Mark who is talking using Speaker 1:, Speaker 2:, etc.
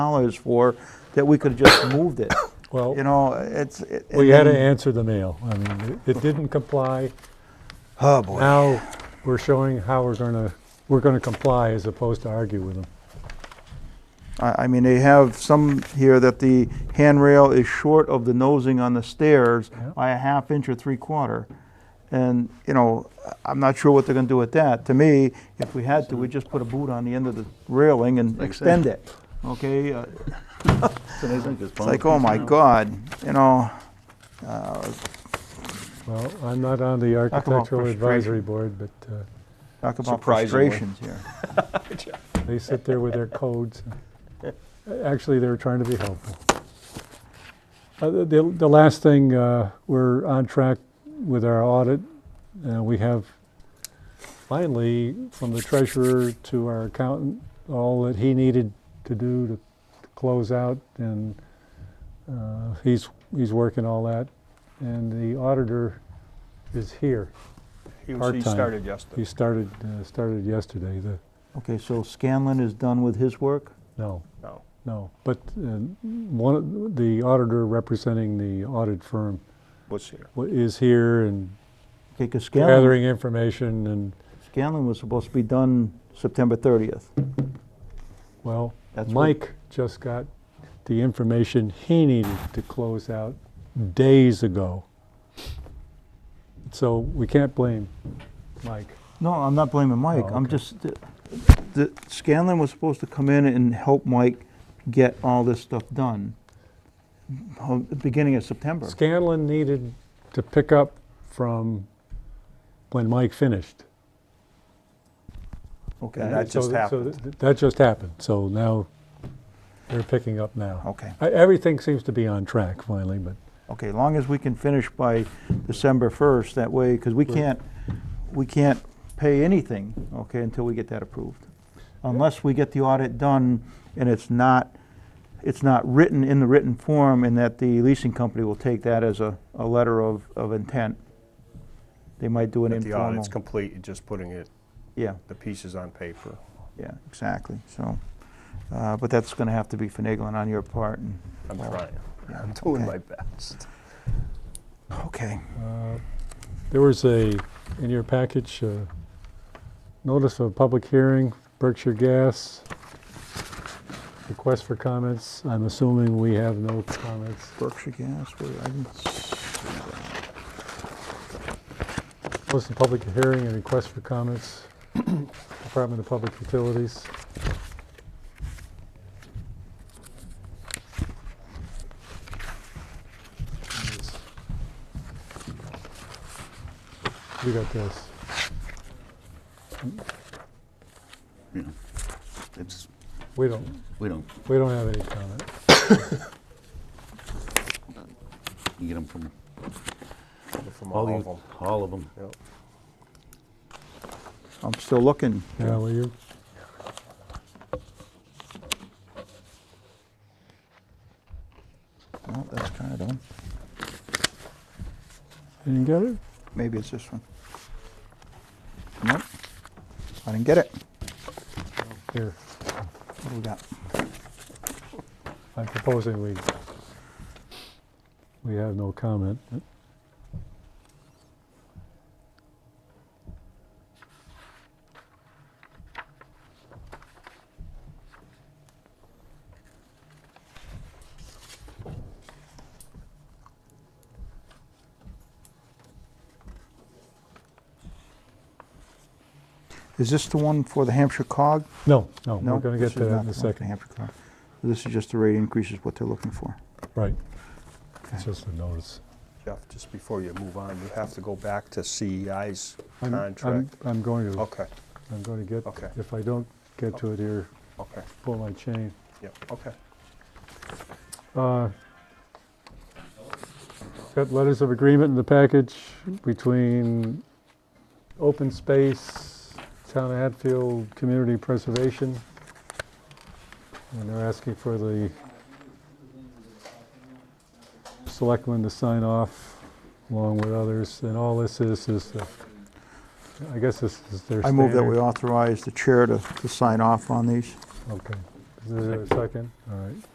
Speaker 1: dollars for, that we could have just moved it.
Speaker 2: Well-
Speaker 1: You know, it's. it-
Speaker 2: We had to
Speaker 1: and-
Speaker 2: answer the mail. I mean, it it didn't comply.
Speaker 1: Oh, boy.
Speaker 2: Now, we're showing how we're going to, we're going to comply as opposed to argue with them.
Speaker 1: I, I mean, they have some here that the handrail is short of the nosing on the stairs
Speaker 2: Yeah.
Speaker 1: by a half inch or three quarter. And, you know, I'm not sure what they're gonna do with that. To me, if we had to, we'd just put a boot on the end of the railing and extend it, okay? Uh, It's like, oh my God, you know,
Speaker 2: Well, I'm not on the
Speaker 1: about
Speaker 2: Architectural Advisory
Speaker 1: frustration.
Speaker 2: Board, but uh,
Speaker 1: talk about
Speaker 3: Surprisingly.
Speaker 1: frustrations here.
Speaker 2: they sit there with their codes. Actually, they were trying to be helpful. Uh, The the- the last thing, uh, we're on track with our audit. Uh, We have finally, from the treasurer to our accountant, all that he needed to do to to close out, and uh, he's, he's working all that. And the auditor is here.
Speaker 3: He was, he
Speaker 2: Part-time.
Speaker 3: started yesterday.
Speaker 2: He started, uh, started yesterday, the,
Speaker 1: Okay, so Scanlon is done with his work?
Speaker 2: no,
Speaker 3: No.
Speaker 2: no. But uh, one, of the auditor representing the audit firm
Speaker 3: Was here.
Speaker 2: wa- is here and
Speaker 1: Okay, because Scanlon,
Speaker 2: gathering information and,
Speaker 1: Scanlon was supposed to be done September 30th.
Speaker 2: well,
Speaker 1: That's what-
Speaker 2: Mike just got the information he needed to close out days ago. So we can't blame Mike.
Speaker 1: No, I'm not blaming Mike.
Speaker 2: Oh,
Speaker 1: I'm
Speaker 2: okay.
Speaker 1: just, the- the, Scanlon was supposed to come in and help Mike get all this stuff done. uh, Beginning of September.
Speaker 2: Scanlon needed to pick up from when Mike finished.
Speaker 3: And
Speaker 1: Okay,
Speaker 3: that-
Speaker 2: So
Speaker 3: just
Speaker 2: th- so
Speaker 3: happened.
Speaker 2: th- That just happened, so now they're picking up now.
Speaker 1: okay,
Speaker 2: E- Everything seems to be on track finally, but
Speaker 1: okay, long as we can finish by December first, that way, because we can't, we can't pay anything, okay, until we get that approved. Unless we get the audit done and it's not, it's not written in the written form and that the leasing company will take that as a, a letter of, of intent. They might do an
Speaker 3: But the
Speaker 1: informal.
Speaker 3: audit's complete, it's just putting it,
Speaker 1: Yeah,
Speaker 3: the pieces on paper.
Speaker 1: yeah, exactly, so, uh, but that's gonna have to be finagling on your part, and,
Speaker 3: I'm
Speaker 1: Well,
Speaker 3: trying.
Speaker 1: yeah,
Speaker 3: I'm doing
Speaker 1: okay.
Speaker 3: my best.
Speaker 1: Okay,
Speaker 2: uh, there was a, in your package, uh, notice of public hearing, Berkshire Gas, request for comments, I'm assuming we have no comments.
Speaker 1: Berkshire Gas, where, I didn't s-
Speaker 2: Notice of public hearing and request for comments, Department of Public Utilities. You got this.
Speaker 4: you know, it's,
Speaker 2: We don't,
Speaker 4: we don't,
Speaker 2: we don't have any comment.
Speaker 4: you get them from
Speaker 3: From
Speaker 4: all
Speaker 3: all of
Speaker 4: the,
Speaker 3: them.
Speaker 4: all of them.
Speaker 3: Yep.
Speaker 1: I'm still looking.
Speaker 2: Yeah, will you?
Speaker 1: Well, that's kinda done,
Speaker 2: Didn't get it?
Speaker 1: maybe it's this one. Nope, I didn't get it,
Speaker 2: Here,
Speaker 1: what do we got?
Speaker 2: I'm proposing we, we have no comment.
Speaker 1: Is this the one for the Hampshire cog?
Speaker 2: No, no,
Speaker 1: No,
Speaker 2: we're going
Speaker 1: this
Speaker 2: to get
Speaker 1: is
Speaker 2: to
Speaker 1: not
Speaker 2: that in
Speaker 1: the
Speaker 2: a
Speaker 1: one for the
Speaker 2: second.
Speaker 1: Hampshire cog. This is just the rate increases, what they're looking for.
Speaker 2: Right.
Speaker 1: Okay.
Speaker 2: It's just a notice.
Speaker 3: Jeff, just before you move on, you have to go back to CEI's
Speaker 2: I'm- I'm-
Speaker 3: contract.
Speaker 2: I'm going to,
Speaker 3: Okay,
Speaker 2: I'm going to
Speaker 3: Okay.
Speaker 2: get, if I don't get to it here,
Speaker 3: okay,
Speaker 2: pull my chain.
Speaker 3: yeah, okay.
Speaker 2: Uh, Got letters of agreement in the package between Open Space, Town of Hatfield, Community Preservation. And they're asking for the selectmen to sign off along with others. And all this is, is, the- I guess this is their
Speaker 1: I move that we
Speaker 2: standard-
Speaker 1: authorize the chair to, to sign off on these.
Speaker 2: Okay. Is there a second? All right.